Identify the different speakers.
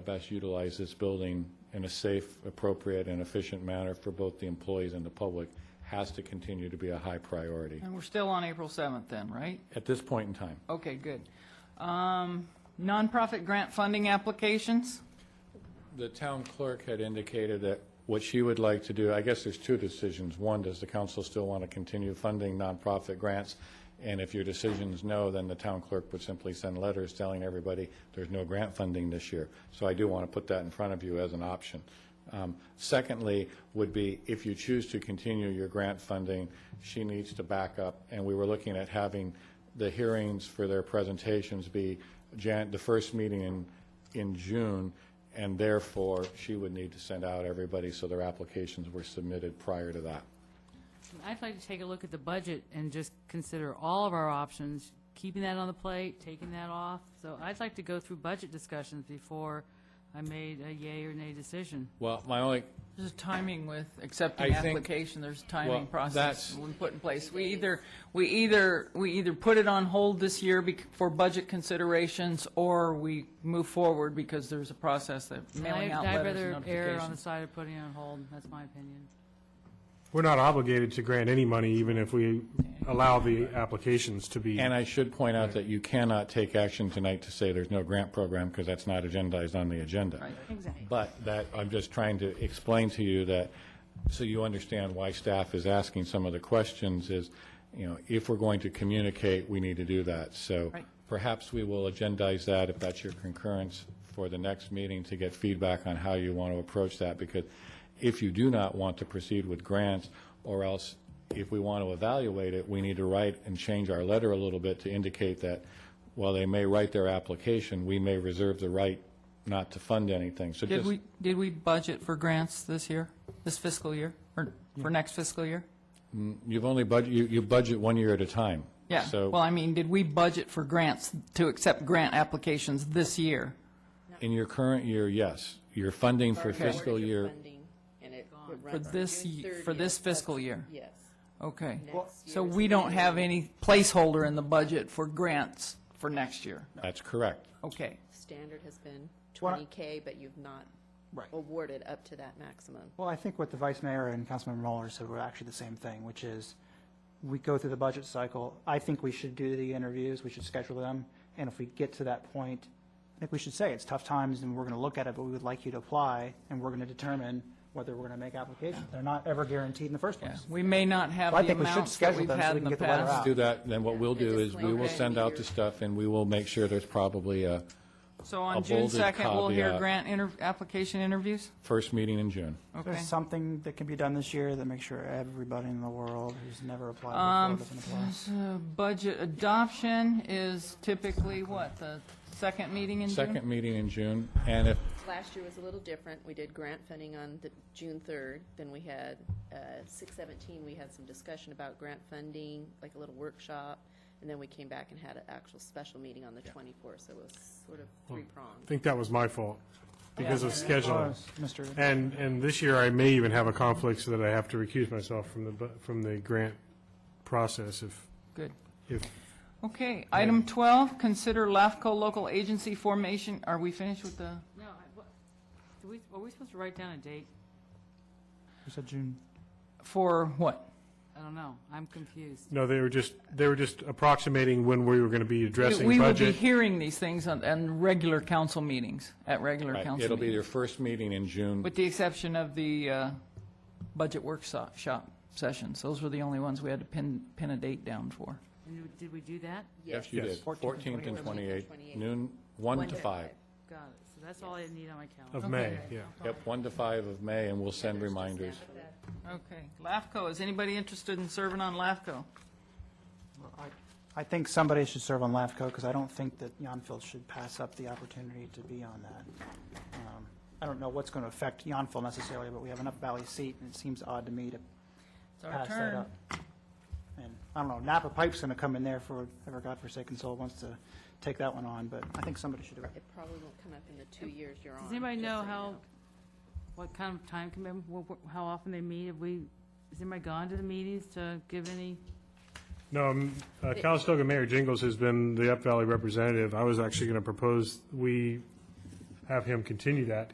Speaker 1: best utilize this building in a safe, appropriate, and efficient manner for both the employees and the public has to continue to be a high priority
Speaker 2: And we're still on April 7th then, right?
Speaker 1: at this point in time.
Speaker 2: Okay, good. Um, Nonprofit grant funding applications?
Speaker 1: The town clerk had indicated that what she would like to do, I guess there's two decisions. One, does the council still want to continue funding nonprofit grants? And if your decision is no, then the town clerk would simply send letters telling everybody there's no grant funding this year. So I do want to put that in front of you as an option. Um, Secondly, would be if you choose to continue your grant funding, she needs to back up. And we were looking at having the hearings for their presentations be Jan, the first meeting in, in June, and therefore, she would need to send out everybody so their applications were submitted prior to that.
Speaker 3: I'd like to take a look at the budget and just consider all of our options, keeping that on the plate, taking that off. So I'd like to go through budget discussions before I made a yay or nay decision.
Speaker 1: Well, my only,
Speaker 2: There's a timing with
Speaker 1: I
Speaker 2: accepting
Speaker 1: think-
Speaker 2: application, there's a
Speaker 1: Well,
Speaker 2: timing process
Speaker 1: that's-
Speaker 2: we put in place. We either, we either, we either put it on hold this year bec- for budget considerations, or we move forward because there's a process that mailing
Speaker 3: I'd-
Speaker 2: out letters and
Speaker 3: I'd rather err on the
Speaker 2: notifications.
Speaker 3: side of putting it on hold, that's my opinion.
Speaker 4: We're not obligated to grant any money, even if we allow the applications to be,
Speaker 1: and I should point out that you cannot take action tonight to say there's no grant program, because that's not agendized on the agenda.
Speaker 3: Exactly.
Speaker 1: But that, I'm just trying to explain to you that, so you understand why staff is asking some of the questions is, you know, if we're going to communicate, we need to do that. So
Speaker 2: Right.
Speaker 1: perhaps we will agendize that, if that's your concurrence, for the next meeting to get feedback on how you want to approach that. Because if you do not want to proceed with grants, or else if we want to evaluate it, we need to write and change our letter a little bit to indicate that while they may write their application, we may reserve the right not to fund anything. So
Speaker 2: Did
Speaker 1: just-
Speaker 2: we, did we budget for grants this year, this fiscal year, or for next fiscal year?
Speaker 1: You've only budget, you, you budget one year at a time.
Speaker 2: Yeah, well,
Speaker 1: So
Speaker 2: I mean, did we budget for grants, to accept grant applications this year?
Speaker 1: in your current year, yes. Your funding for
Speaker 5: Okay.
Speaker 1: fiscal year,
Speaker 5: Funding, and it would
Speaker 2: For
Speaker 5: run through
Speaker 2: this
Speaker 5: June
Speaker 2: ye-
Speaker 5: 30th.
Speaker 2: for this fiscal
Speaker 5: That's-
Speaker 2: year.
Speaker 5: Yes.
Speaker 2: Okay.
Speaker 5: Next
Speaker 2: So
Speaker 5: year's
Speaker 2: we don't have
Speaker 5: annual
Speaker 2: any placeholder in the budget for grants for next year?
Speaker 1: that's correct.
Speaker 2: Okay.
Speaker 5: Standard has been 20K, but you've not
Speaker 2: Right.
Speaker 5: awarded up to that maximum.
Speaker 6: Well, I think what the vice mayor and Councilmember Muller said were actually the same thing, which is, we go through the budget cycle. I think we should do the interviews, we should schedule them, and if we get to that point, I think we should say, it's tough times, and we're going to look at it, but we would like you to apply, and we're going to determine whether we're going to make applications. They're not ever guaranteed in the first place.
Speaker 2: We may not have
Speaker 6: Well, I
Speaker 2: the
Speaker 6: think we should
Speaker 2: amounts that
Speaker 6: schedule
Speaker 2: we've
Speaker 6: them so
Speaker 2: had
Speaker 6: we
Speaker 2: in
Speaker 6: can
Speaker 2: the
Speaker 6: get the letter
Speaker 2: past.
Speaker 6: out.
Speaker 1: Do that, then what we'll do is we will
Speaker 5: Okay.
Speaker 1: send out the stuff and we will make sure there's probably a
Speaker 2: So
Speaker 1: A
Speaker 2: on June
Speaker 1: bolded
Speaker 2: 2nd, we'll hear
Speaker 1: caveat.
Speaker 2: grant inter, application interviews?
Speaker 1: first meeting in June.
Speaker 2: Okay.
Speaker 6: There's something that can be done this year that makes sure everybody in the world who's never applied before doesn't apply.
Speaker 2: So Budget adoption is typically what, the second meeting in June?
Speaker 1: Second meeting in June, and if,
Speaker 5: Last year was a little different. We did grant funding on the June 3rd, then we had, uh, 6/17, we had some discussion about grant funding, like a little workshop, and then we came back and had an actual special meeting on the 24th, so it was sort of
Speaker 4: I
Speaker 5: three-pronged.
Speaker 4: think that was my fault, because of scheduling.
Speaker 6: Mr.
Speaker 4: And, and this year, I may even have a conflict so that I have to recuse myself from the, bu- from the grant process if,
Speaker 2: Good.
Speaker 4: if,
Speaker 2: Okay. Item 12, consider LAFCO local agency formation. Are we finished with the?
Speaker 3: No, I- what- do we, are we supposed to write down a date?
Speaker 6: You said June.
Speaker 2: For what?
Speaker 3: I don't know, I'm confused.
Speaker 4: no, they were just, they were just approximating when we were going to be addressing
Speaker 2: We will be
Speaker 4: budget.
Speaker 2: hearing these things on, on regular council meetings, at regular
Speaker 1: right,
Speaker 2: council meetings.
Speaker 1: it'll be your first meeting in June.
Speaker 2: With the exception of the uh, budget workshop shop sessions, those were the only ones we had to pin, pin a date down for.
Speaker 3: And did we do that?
Speaker 1: Yes, you
Speaker 4: Yes.
Speaker 1: did. Fourteenth and
Speaker 5: 28th.
Speaker 1: twenty-eighth, noon, one to five.
Speaker 3: Got it, so that's all I need on my calendar.
Speaker 4: Of May, yeah.
Speaker 1: Yep, one to five of May, and we'll send reminders.
Speaker 2: Okay, LAFCO, is anybody interested in serving on LAFCO?
Speaker 6: I think somebody should serve on LAFCO, because I don't think that Yountville should pass up the opportunity to be on that. Um, I don't know what's going to affect Yountville necessarily, but we have enough Valley seat, and it seems odd to me to
Speaker 2: It's our
Speaker 6: pass that
Speaker 2: turn.
Speaker 6: up. And, I don't know, Napa Pipe's going to come in there for, ever godforsaken soul wants to take that one on, but I think somebody should do it.
Speaker 5: It probably won't come up in the two years you're on.
Speaker 3: Does anybody
Speaker 5: just
Speaker 3: know
Speaker 5: so you
Speaker 3: how, what kind of time commitment, wh- wh- how often they meet? Have we, has anybody gone to the meetings to give any?
Speaker 4: No, um, uh, Calistoga Mayor Jingles has been the Up Valley representative. I was actually going to propose we have him continue that.